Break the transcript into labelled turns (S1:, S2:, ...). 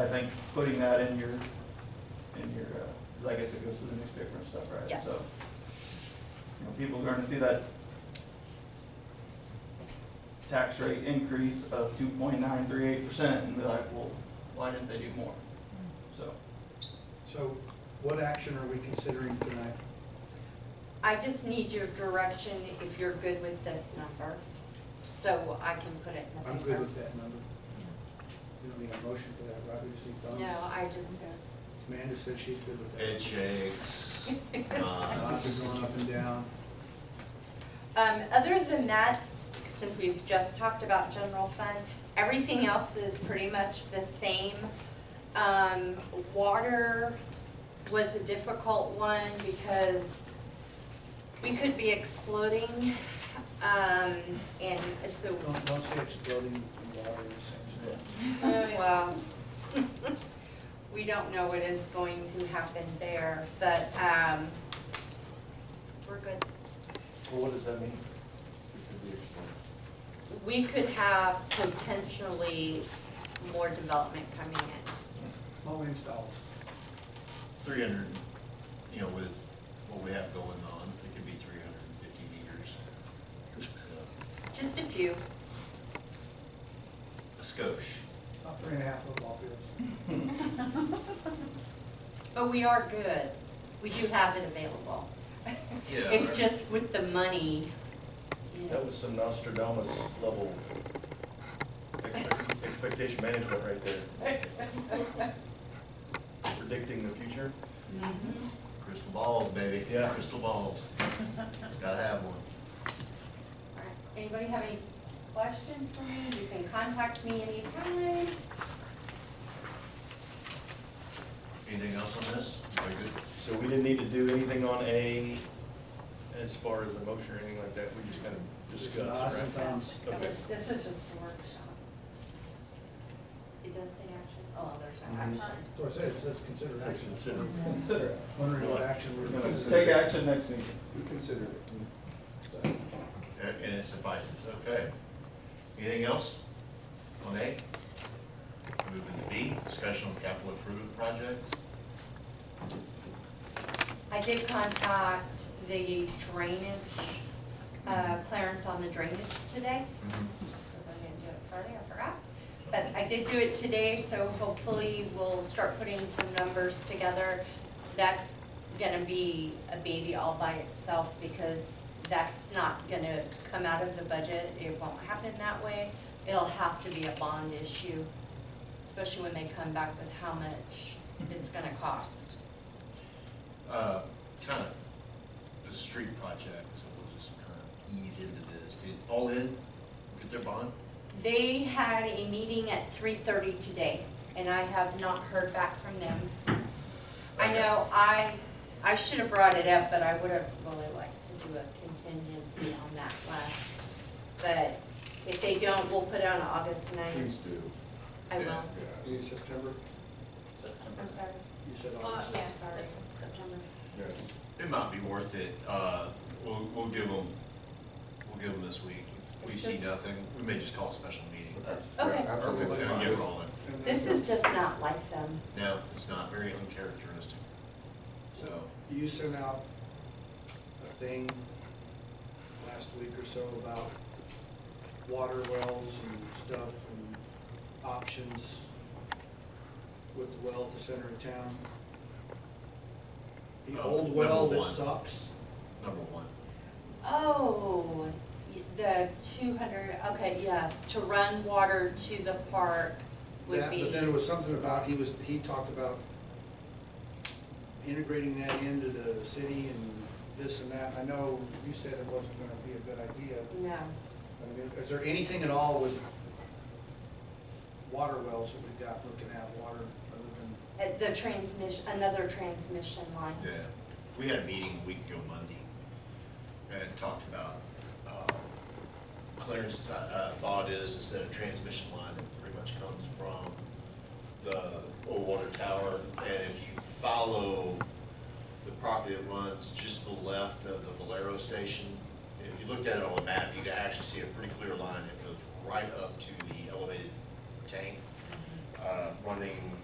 S1: I think putting that in your, in your, uh, I guess it goes to the newspaper and stuff, right?
S2: Yes.
S1: So, you know, people are gonna see that tax rate increase of two point nine three eight percent and be like, well, why didn't they do more? So,
S3: So what action are we considering tonight?
S2: I just need your direction if you're good with this number, so I can put it in the
S3: I'm
S2: paper.
S3: good with that number. You don't need a motion for that, right? We just need thumbs.
S2: No, I just,
S3: Amanda said she's good with that.
S4: Head shakes.
S3: Lots
S4: nods.
S3: of going up and down.
S2: um, other than that, since we've just talked about general fund, everything else is pretty much the same. Um, water was a difficult one because we could be exploding, um, and so,
S3: Don't, don't say exploding in water in the same sentence.
S2: Well, we don't know what is going to happen there, but, um, we're good.
S5: Well, what does that mean?
S2: We could have potentially more development coming in.
S3: Low installs.
S4: Three hundred, you know, with what we have going on, it could be three hundred and fifty meters. Uh, So,
S2: Just a few.
S4: A skosh.
S3: About three and a half football fields.
S2: But we are good. We do have it available.
S4: Yeah.
S2: It's just with the money, you
S5: That
S2: know,
S5: was some Nostradamus level expect- expectation management right there. Predicting the future.
S4: Crystal balls, baby.
S5: Yeah.
S4: Crystal balls. Gotta have one.
S2: All right. Anybody have any questions for me? You can contact me anytime.
S4: Anything else on this? Very good.
S5: So we didn't need to do anything on A as far as a motion or anything like that. We just kind of discussed,
S3: Lots
S5: right?
S3: of times.
S2: That
S5: Okay.
S2: was- This is just a workshop. It does say action, oh, there's no
S5: Mhm.
S2: action.
S3: So I said, it says consider
S5: This is
S3: action.
S5: considered.
S1: consider it.
S3: Wondering what action we're
S1: You know,
S3: gonna
S1: just
S3: consider.
S1: take action next meeting.
S6: Consider it.
S4: Uh, And it suffices, okay. Anything else on A? Moving to B, discussion on capital improvement projects.
S2: I did contact the drainage, uh, Clarence on the drainage today, because I didn't do it Friday, I forgot. But I did do it today, so hopefully we'll start putting some numbers together. That's gonna be a baby all by itself, because that's not gonna come out of the budget, it won't happen that way. It'll have to be a bond issue, especially when they come back with how much it's gonna cost.
S4: Uh, kind of, the street project, so we'll just kind of ease into this. Did all in, get their bond?
S2: They had a meeting at three thirty today, and I have not heard back from them. I know, I, I should have brought it up, but I would have really liked to do a contingency on that last. But if they don't, we'll put it on August ninth.
S6: Please do.
S2: I will,
S4: Yeah.
S6: In September?
S2: I'm sorry,
S3: You said all
S7: Uh,
S3: this.
S7: yes,
S2: sorry,
S7: Sep-
S2: September.
S6: Yeah.
S4: It might be worth it. Uh, we'll, we'll give them, we'll give them this week. If we
S2: It's
S4: see
S2: just-
S4: nothing, we may just call a special meeting.
S2: Okay.
S4: Or
S6: Absolutely.
S4: we'll get rolling.
S6: And then-
S2: This is just not like them.
S4: No, it's not very uncharacteristic. So,
S3: You sent out a thing last week or so about water wells and stuff and options with the well at the center of town. The
S4: Oh,
S3: old well
S4: number
S3: that
S4: one.
S3: sucks,
S4: number one.
S2: Oh, y- the two hundred, okay, yes, to run water to the park would
S3: that,
S2: be.
S3: but then it was something about, he was, he talked about integrating that into the city and this and that. I know you said it wasn't gonna be a good idea,
S2: No.
S3: I mean, Is there anything at all with water wells that we've got looking at water, other than,
S2: Uh, The transmission, another transmission line.
S4: Yeah, we had a meeting a week ago Monday, and talked about, uh, Clarence's, uh, thought is, is that a transmission line that pretty much comes from the old water tower, and if you follow the property that runs just to the left of the Valero station, if you looked at it on the map, you could actually see a pretty clear line that goes right up to the elevated tank. Uh, uh, running